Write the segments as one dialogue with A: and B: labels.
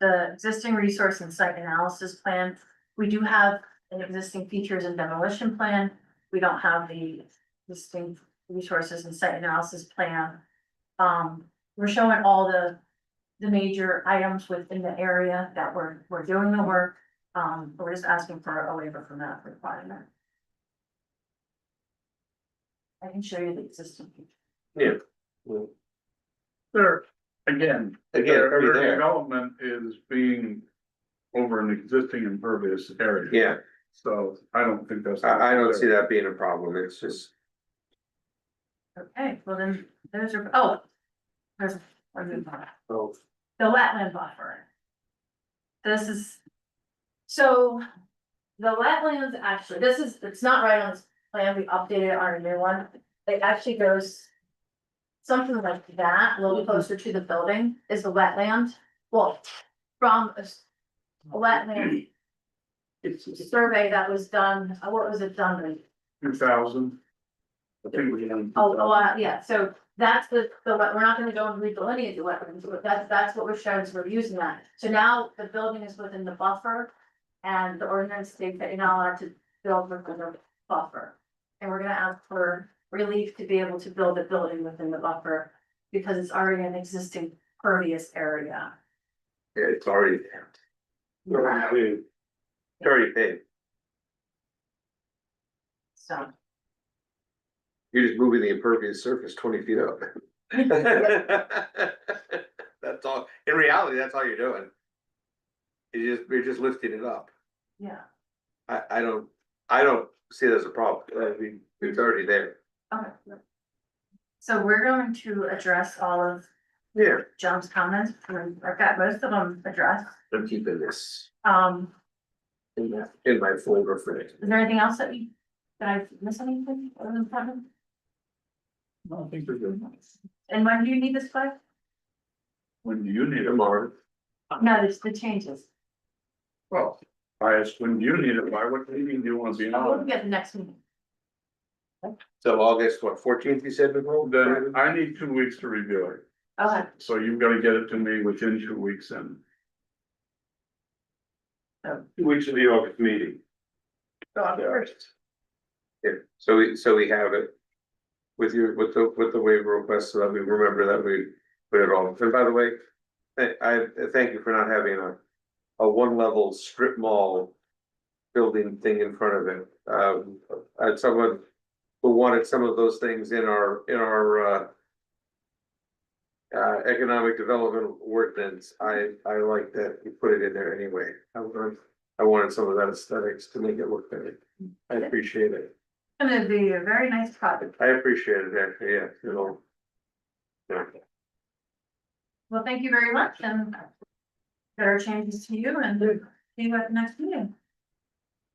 A: the existing resource and site analysis plan. We do have an existing features and demolition plan. We don't have the existing resources and site analysis plan. Um, we're showing all the, the major items within the area that we're, we're doing the work. Um, but we're just asking for a waiver from that requirement. I can show you the existing. features.
B: Well,
C: There, again.
B: Again,
C: their-
B: already
C: their
B: there.
C: Development is being over an existing impervious area.
B: Yeah,
C: So I don't think that's.
B: I, I don't see that being a problem, it's just,
A: Okay, well then, there's your, oh. There's one new one.
B: oh,
A: the wetland buffer. This is. So. The wetlands actually, this is, it's not right on this plan, we updated it on a new one, it actually goes. Something like that, a little closer to the building is the wetland, well, from a. s- a Wetland
C: It's
A: survey that was done, uh, what was it done with?
C: two thousand. I think we
A: Oh, oh, uh, yeah, so that's the, the, wet- we're not gonna go and redelineate the wetlands, but that's, that's what we're showing, is we're using that. So now the building is within the buffer, and the ordinance states that you're not allowed to build within the buffer. And we're gonna ask for relief to be able to build a building within the buffer, because it's already an existing pervious area.
B: yeah, it's already there. It's already paved,
A: So,
B: you're just moving the impervious surface twenty feet up. That's all, in reality, that's all you're doing. You just, you're just lifting it up,
A: yeah,
B: I, I don't, I don't see it as a problem, I mean, it's already there.
A: okay. So we're going to address all of
B: Yeah.
A: John's comments, and I've got most of them addressed.
B: I'm keeping this
A: Um,
B: in my, in my folder for it.
A: Is there anything else that we, did I miss anything other than Platinum?
C: don't think they're good.
A: And when do you need this by?
C: When do you need it?
B: Tomorrow,
A: No, it's the changes.
C: Well, I asked, when do you need it? By what meeting do you want to be
A: We'll
C: on?
A: get the next meeting.
B: so August, what, fourteenth, you said, Nicole?
C: Then I need two weeks to review it.
A: Okay,
C: So you've got to get it to me within two weeks and.
B: Two weeks of the August meeting.
A: go on first.
B: Yeah, so we, so we have it. With your, with the, with the waiver request, so that we remember that we put it all, and by the way. tha- I, I thank you for not having a, a one level strip mall. Building thing in front of it, um, I had someone who wanted some of those things in our, in our, uh. Uh, economic development ordinance, I, I like that you put it in there anyway, I wanted, I wanted some of that aesthetics to make it look better, I appreciate it.
A: And it'd be a very nice project.
B: I appreciate it, actually, yeah, you know. Yeah,
A: Well, thank you very much and there are changes to you and see you at the next meeting.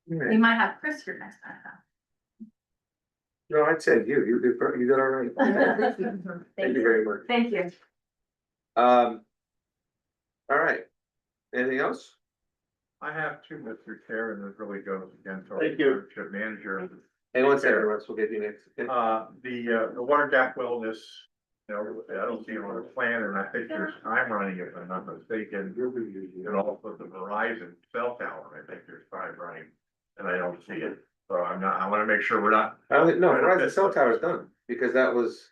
A: We might have Chris here next time.
B: no, I'd say you, you did, per- you did all right.
A: though.
B: Thank
A: Thank
B: you
A: you.
B: very much.
A: Thank you.
B: Um. All right, anything else?
C: I have two, Mr. Chair, and it really goes again to. our
B: Thank you.
C: township Manager.
B: Hang on a second, Russ, we'll get you next. Yeah.
C: Uh, the, uh, the water gap wellness, you know, I don't see it on the plan, and I think there's time running, if I'm not mistaken. And also the Verizon cell tower, I think there's time running, and I don't see it, so I'm not, I wanna make sure we're not.
B: I don't, no, Verizon cell tower's done, because that was,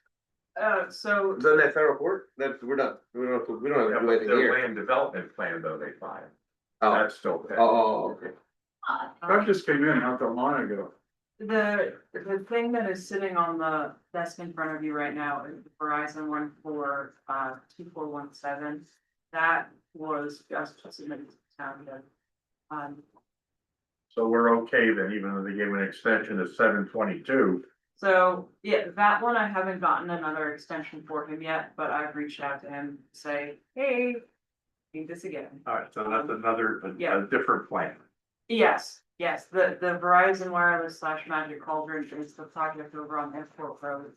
D: Uh, so,
B: was that that federal court? That, we're done, we don't, have to- we don't have to do anything
C: Their
B: here.
C: land development plan though, they filed,
B: Oh,
C: that's still.
B: oh, oh, okay,
A: Aw,
D: That
C: just came in not that long ago.
D: um, the, the thing that is sitting on the desk in front of you right now is the Verizon one four, uh, two four one seven. That was just submitted to town, then. um,
C: So we're okay then, even though they gave an extension to seven twenty-two.
D: So, yeah, that one I haven't gotten another extension for him yet, but I've reached out to him, say, hey. Need this again.
C: All right, so
D: that's
C: another,
D: Yeah.
C: different plan.
D: Yes, yes, the, the Verizon Wireless slash Magic Cauldron is the project over on Airport Road.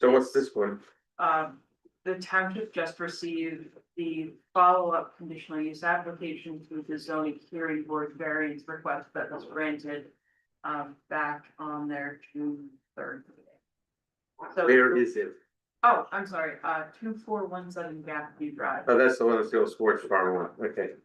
B: so what's this one?
D: Um, the township just received the follow-up conditional use application through the zoning hearing board variance request that was granted. Um, back on their June third. meeting. So
B: Where is it?
D: Oh, I'm sorry, uh, two four one seven Gap View Drive.
B: Oh, that's the one that's the old sports farm one, okay.